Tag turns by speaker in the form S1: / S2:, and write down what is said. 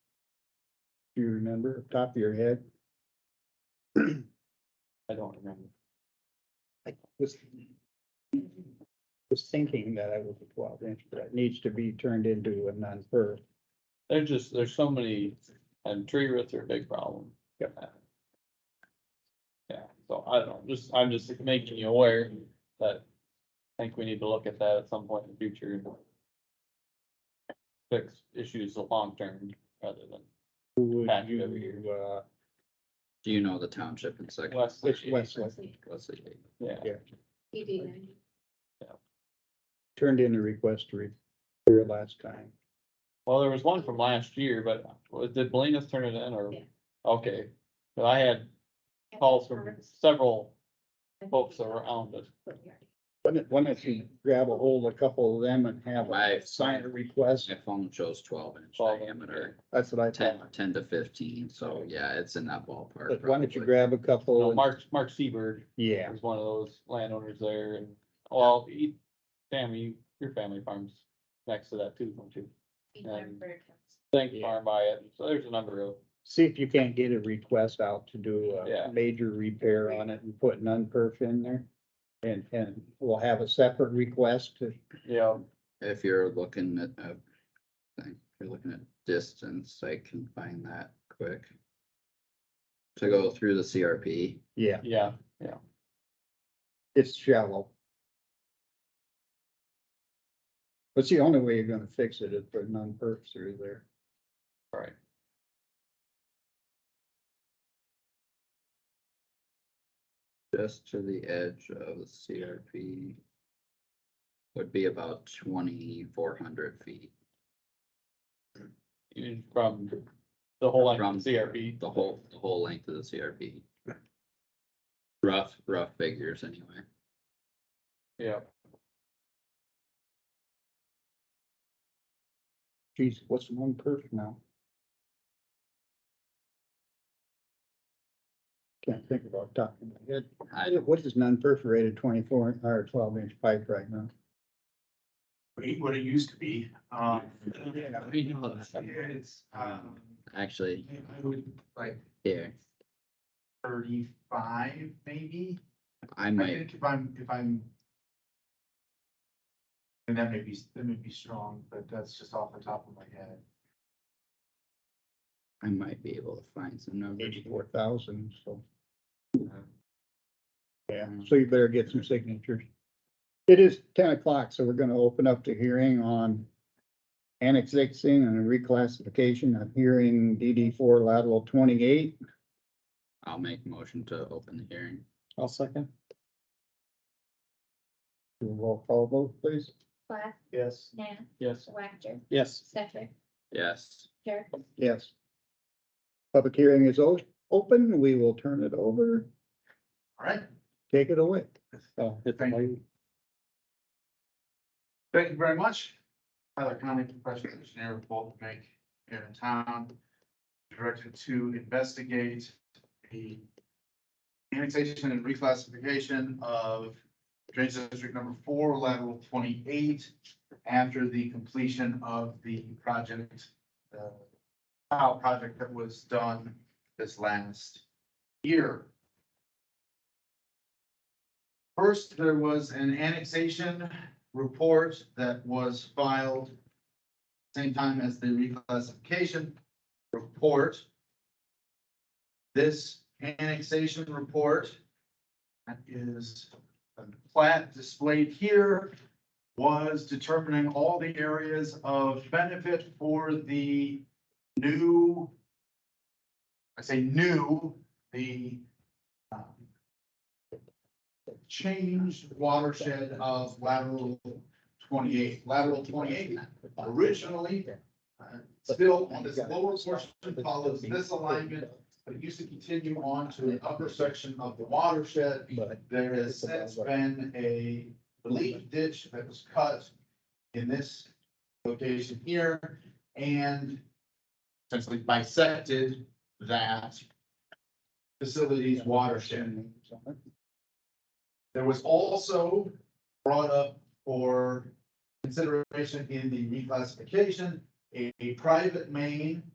S1: remember, top of your head?
S2: I don't remember.
S1: I was, was thinking that I was a twelve inch, but it needs to be turned into a non-per.
S2: There's just, there's so many, and tree roots are a big problem. Yeah, so I don't know, just, I'm just making you aware that I think we need to look at that at some point in the future. and Fix issues long term rather than
S1: Who would
S2: Patch it every year.
S1: you, uh,
S3: Do you know the township in second?
S2: West.
S1: which Westlake
S3: Wesley.
S2: Yeah,
S4: ED.
S1: turned in a request to repair last time?
S2: well, there was one from last year, but was- did Belinas turn it in or?
S4: Yeah.
S2: Okay, but I had calls from several folks around us.
S1: Why don't, why don't you grab a hold of a couple of them and have
S3: My-
S1: a sign a request?
S3: My phone shows twelve inch
S2: 12 inch,
S3: diameter,
S1: That's what I
S3: ten,
S1: thought.
S3: ten to fifteen, so yeah, it's in that ballpark.
S1: But why don't you
S3: probably.
S1: grab a couple?
S2: No,
S1: and-
S2: Mark, Mark Seberg
S1: Yeah,
S2: was one of those landowners there and, well, he, Sammy, your family farms next to that too, don't you? Thank
S1: Yeah.
S2: Farm by it, so there's a number of,
S1: see if you can't get a request out to do
S2: Yeah.
S1: a major repair on it and put an unperf in there. And, and we'll have a separate request to
S2: yeah,
S3: If you're looking at, uh, thing, if you're looking at distance, I can find that quick. To go through the CRP,
S1: Yeah,
S2: yeah,
S1: it's shallow. But it's the only way you're gonna fix it is put non-perf through there.
S2: Right.
S3: just to the edge of the CRP. Would be about twenty-four hundred feet
S2: even from the whole length
S3: from.
S2: of CRP.
S3: The whole, the whole length of the CRP. Rough, rough figures anyway.
S2: Yeah,
S1: Geez, what's one perf now? Can't think about top of my head.
S3: I-
S1: What is non-perforated twenty-four or twelve inch pipe right now?
S5: what it, what it used to be, um.
S3: We know that.
S5: It's, um,
S3: Actually,
S5: I would like
S3: here,
S5: thirty-five maybe,
S3: I
S5: I
S3: might,
S5: think if I'm, if I'm. And that may be, that may be strong, but that's just off the top of my head.
S3: I might be able to find some numbers.
S1: Eighty-four thousand, so.
S3: Yeah.
S1: Yeah, so you better get some signatures. It is ten o'clock, so we're gonna open up the hearing on annexation and reclassification of hearing DD four lateral twenty-eight.
S3: I'll make a motion to open the hearing.
S2: I'll second.
S1: Do a Roll call vote, please.
S4: Plath,
S5: Yes.
S4: Nan,
S2: Yes.
S4: Whacker,
S2: Yes.
S4: Stecker,
S3: Yes,
S4: Jerk,
S1: Yes. Public hearing is o- open. We will turn it over.
S5: All right,
S1: Take it away.
S5: Thank thank you very much. Tyler Conley, professional engineer with Bolton Bank here in town. Directed to investigate the annexation and reclassification of Drainage District Number Four, lateral twenty-eight, after the completion of the project, uh, tile project that was done this last year. First, there was an annexation report that was filed same time as the reclassification report. This annexation report that is the plat displayed here was determining all the areas of benefit for the new, I say new, the um, changed watershed of lateral twenty-eight, lateral twenty-eight originally, uh, still on this lower portion follows this alignment, but it used to continue on to an upper section of the watershed.
S1: But
S5: There has since been a relief ditch that was cut in this location here and essentially bisected that facility's watershed. There was also brought up for consideration in the reclassification, a, a private main